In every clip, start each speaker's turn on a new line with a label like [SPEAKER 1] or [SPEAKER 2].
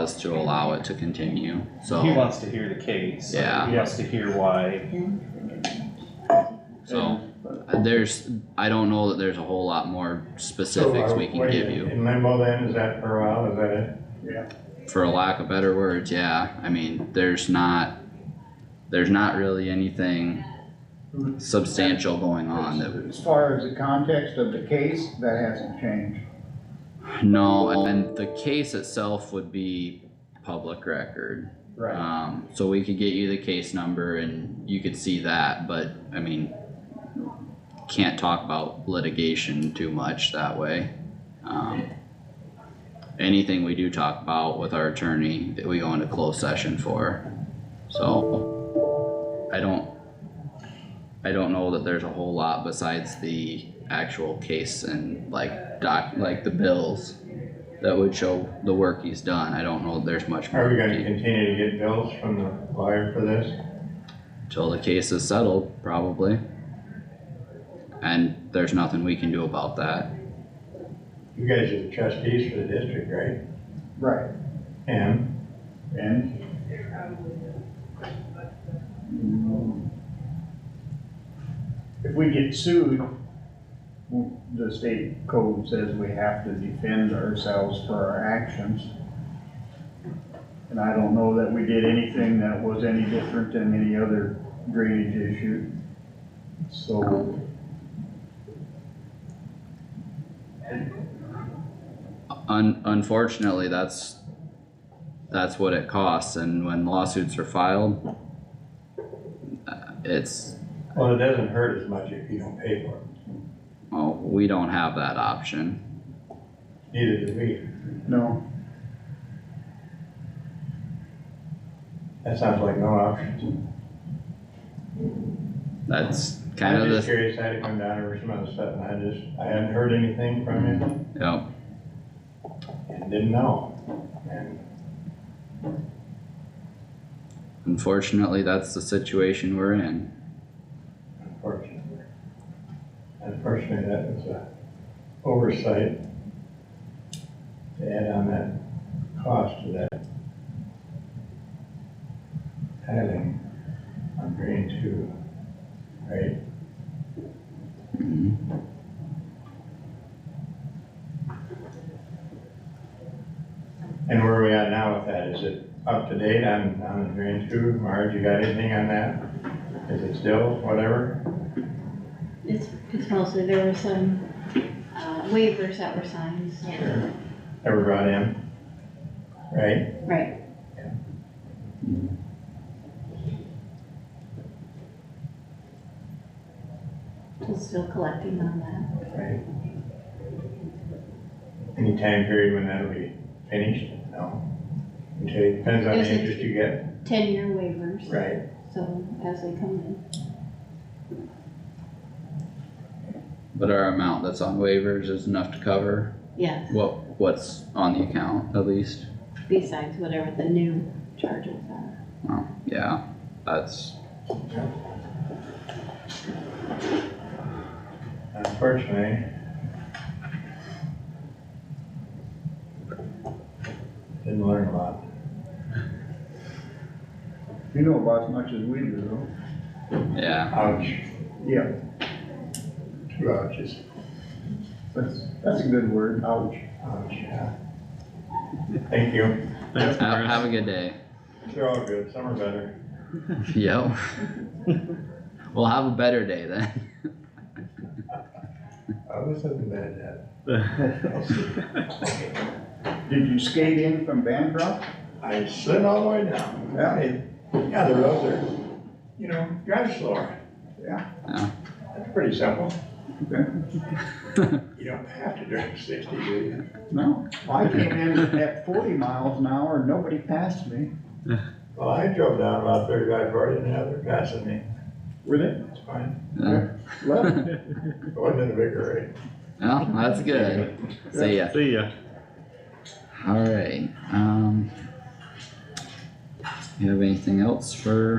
[SPEAKER 1] was to allow it to continue,
[SPEAKER 2] He
[SPEAKER 1] so,
[SPEAKER 2] wants to hear the case.
[SPEAKER 1] Yeah.
[SPEAKER 2] He wants to hear why.
[SPEAKER 1] so. There's, I don't know that there's a whole lot more specifics we can give you,
[SPEAKER 3] In limbo then, is that for a while, is that it?
[SPEAKER 1] for a lack of better words, yeah, I mean, there's not, there's not really anything substantial going on that
[SPEAKER 4] As far as the context of the case, that hasn't changed.
[SPEAKER 1] No, and then the case itself would be public record. Um, so we could get you the case number and you could see that, but I mean, can't talk about litigation too much that way. Um, anything we do talk about with our attorney that we go into closed session for, so I don't, I don't know that there's a whole lot besides the actual case and like doc, like the bills that would show the work he's done. I don't know that there's much more.
[SPEAKER 3] Are we
[SPEAKER 1] to
[SPEAKER 3] gonna
[SPEAKER 1] do.
[SPEAKER 3] continue to get bills from the lawyer for this?
[SPEAKER 1] Till the case is settled, probably. And there's nothing we can do about that.
[SPEAKER 3] You guys are the trustees for the district, right?
[SPEAKER 4] Right.
[SPEAKER 3] And
[SPEAKER 4] And? If we get sued, w- the state code says we have to defend ourselves for our actions. And I don't know that we did anything that was any different than any other drainage issue. So,
[SPEAKER 1] Un- unfortunately, that's, that's what it costs, and when lawsuits are filed, uh, it's,
[SPEAKER 3] Well, it doesn't hurt as much if you don't pay for it,
[SPEAKER 1] oh, we don't have that option.
[SPEAKER 3] neither do we.
[SPEAKER 4] no,
[SPEAKER 3] That sounds like no option.
[SPEAKER 1] That's kind
[SPEAKER 3] I'm
[SPEAKER 1] of
[SPEAKER 3] just
[SPEAKER 1] the,
[SPEAKER 3] curious how to come down over some other stuff, and I just, I hadn't heard anything from him
[SPEAKER 1] yep,
[SPEAKER 3] and didn't know. And
[SPEAKER 1] unfortunately, that's the situation we're in.
[SPEAKER 3] unfortunately, unfortunately, that was a oversight to add on that cost to that tiling on grade two, right?
[SPEAKER 1] Mhm.
[SPEAKER 3] And where are we at now with that? Is it up to date on, on the drain two? Marge, you got anything on that? Is it still whatever?
[SPEAKER 5] It's, it's mostly, there were some uh, waivers that were signed, so.
[SPEAKER 3] Ever brought in? Right?
[SPEAKER 5] Right, we're still collecting on that.
[SPEAKER 3] Right. Any time period when that'll be finished? No? Okay, depends on the
[SPEAKER 5] There's a-
[SPEAKER 3] interest you get.
[SPEAKER 5] Ten-year waivers.
[SPEAKER 3] Right.
[SPEAKER 5] So as they come in.
[SPEAKER 1] But our amount that's on waivers is enough to cover
[SPEAKER 5] Yes,
[SPEAKER 1] what, what's on the account, at least.
[SPEAKER 5] besides whatever the new charges are.
[SPEAKER 1] Oh, yeah, that's,
[SPEAKER 3] Unfortunately. Didn't learn a lot.
[SPEAKER 4] you know about as much as we do, though.
[SPEAKER 1] yeah,
[SPEAKER 3] Ouch.
[SPEAKER 4] Yeah,
[SPEAKER 3] Two ouches.
[SPEAKER 4] that's, that's a good word, ouch.
[SPEAKER 3] Ouch, yeah. Thank you.
[SPEAKER 2] Thanks,
[SPEAKER 1] have,
[SPEAKER 2] Chris.
[SPEAKER 1] have a good day,
[SPEAKER 3] They're all good. Some are better.
[SPEAKER 1] yep. We'll have a better day then,
[SPEAKER 3] I was hoping that
[SPEAKER 4] Did you skate in from Bancroft?
[SPEAKER 3] I slid all the way down.
[SPEAKER 4] Yeah.
[SPEAKER 3] It- Yeah, the roads are, you know, drive slower.
[SPEAKER 4] Yeah.
[SPEAKER 1] Yeah.
[SPEAKER 3] That's pretty simple.
[SPEAKER 4] Okay.
[SPEAKER 3] You don't have to drive sixty, do you?
[SPEAKER 4] No, I came in at forty miles an hour, and nobody passed me.
[SPEAKER 3] Well, I drove down about thirty-five, forty, and now they're passing me.
[SPEAKER 4] Were they?
[SPEAKER 3] It's fine.
[SPEAKER 1] Yeah.
[SPEAKER 4] Left.
[SPEAKER 3] It wasn't in a big hurry.
[SPEAKER 1] well, that's good, see ya,
[SPEAKER 2] See ya.
[SPEAKER 1] alright, um. You have anything else for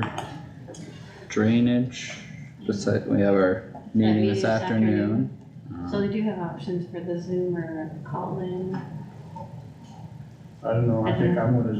[SPEAKER 1] drainage, besides, we have our meeting
[SPEAKER 5] meeting
[SPEAKER 1] this
[SPEAKER 5] this
[SPEAKER 1] afternoon.
[SPEAKER 5] So
[SPEAKER 1] Um,
[SPEAKER 5] they do have options for the Zoom or call-in.
[SPEAKER 4] I don't know, I think I'm gonna